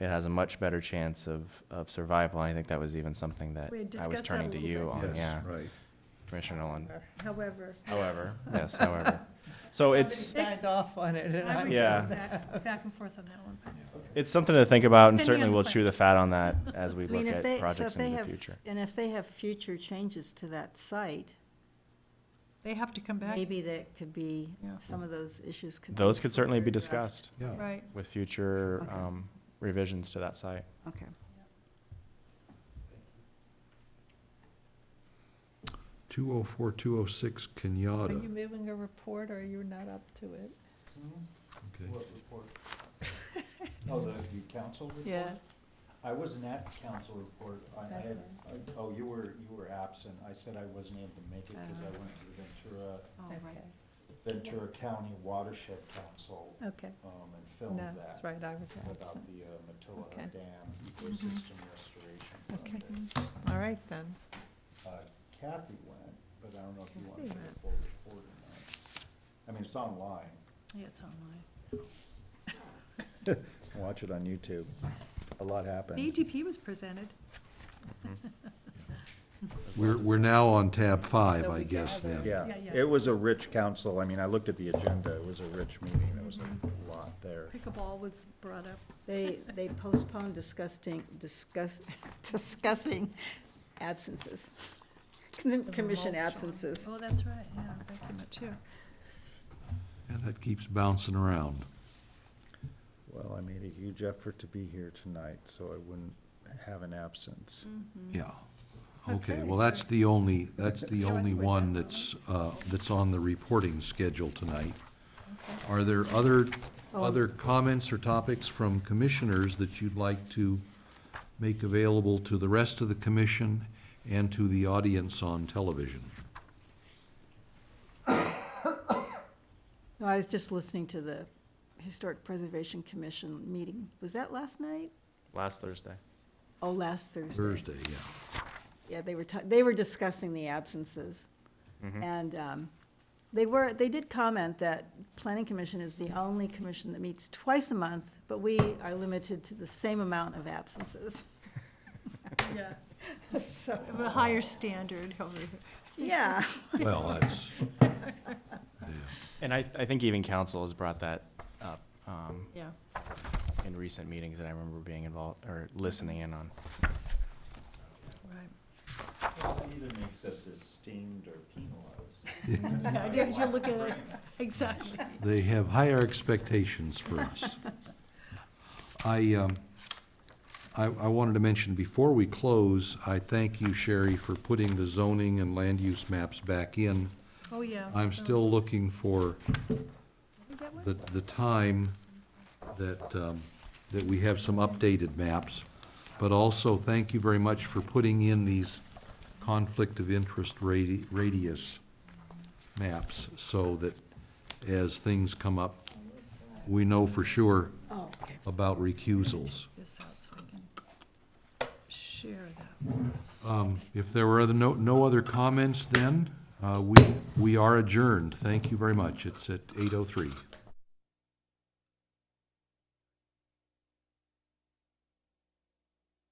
it has a much better chance of, of survival. I think that was even something that We had I was discussed that a turning to little you bit. on, yeah, Yes, right. Commissioner Nolan. However. However, yes, however. So it's, Somebody Signed off on it, and I I would go Yeah. back- Back and forth on that one. it's something to think about and Depending certainly on the we'll chew plan. the fat on that as we I mean, look if at they, so if projects they into the have, future. and if they have future changes to that site, They have to come back, maybe that could be, Yeah. some of those issues could. be Those could certainly be further discussed Yeah. right. with future Okay. um, revisions to that site. Okay. Two oh four, two oh six, Are Kenyatta. you moving a report, or you're not up to it? Okay. What report? Oh, the, the council report? Yeah. I wasn't at the council report. I I had, I- oh, you were, you were absent. I said I wasn't able to make it because I went to the Oh, All right. Ventura, Ventura County Watershed Council, Okay, um, and filmed no, that. Oh. that's right, I was About absent. the uh, Matoa Okay. Mm-hmm. Dam ecosystem restoration Okay. project. All right, then. Uh, Kathy went, but I don't know if you want to Kathy put went. a full report or not. I mean, it's online. Yeah, it's online. Watch it on YouTube. A lot happened. The ETP was presented. We're, we're now on tab five, So I we guess, gather- then. Yeah, Yeah, yeah. it was a rich council. I mean, I looked at the agenda. It was a rich meeting. There was Mm-hmm. a lot there. Pickleball was brought up. They, they postponed discussing, discuss, discussing absences, Com- The commission remote, Sean. absences. Oh, that's right, yeah, that came up too. And that keeps bouncing around. Well, I made a huge effort to be here tonight, so I wouldn't have an Mm-hmm. absence. Yeah. Okay, Okay, well, so- that's the only, that's the You're only with one that. that's, uh, that's on the reporting schedule tonight. Are there other, Oh. other comments or topics from commissioners that you'd like to make available to the rest of the commission and to the audience on television? No, I was just listening to the Historic Preservation Commission meeting. Was that last night? Last Thursday. Oh, last Thursday. Thursday, yeah. Yeah, they were, ta- they were discussing the absences. Mm-hmm. And um, they were, they did comment that Planning Commission is the only commission that meets twice a month, but we are limited to the same amount of absences. Yeah, So, of a higher standard over here. yeah. Well, that's, And I, I think even council has brought that up um, Yeah. in recent meetings that I remember being involved or listening in on. Right. Either makes us esteemed or penalized. Yeah, did you look at it? Exactly. they have higher expectations for us. I, um, I, I wanted to mention, before we close, I thank you, Sherry, for putting the zoning and land use maps back in. Oh, yeah. I'm so- still looking for Did we get one? the, the time that, um, that we have some updated maps. But also, thank you very much for putting in these conflict of interest radi- radius maps so that as things come up, we know for sure Oh, okay. about recusals. This out so I can share that with us. Um, If there were other, no, no other comments then, uh, we, we are adjourned. Thank you very much. It's at eight oh three.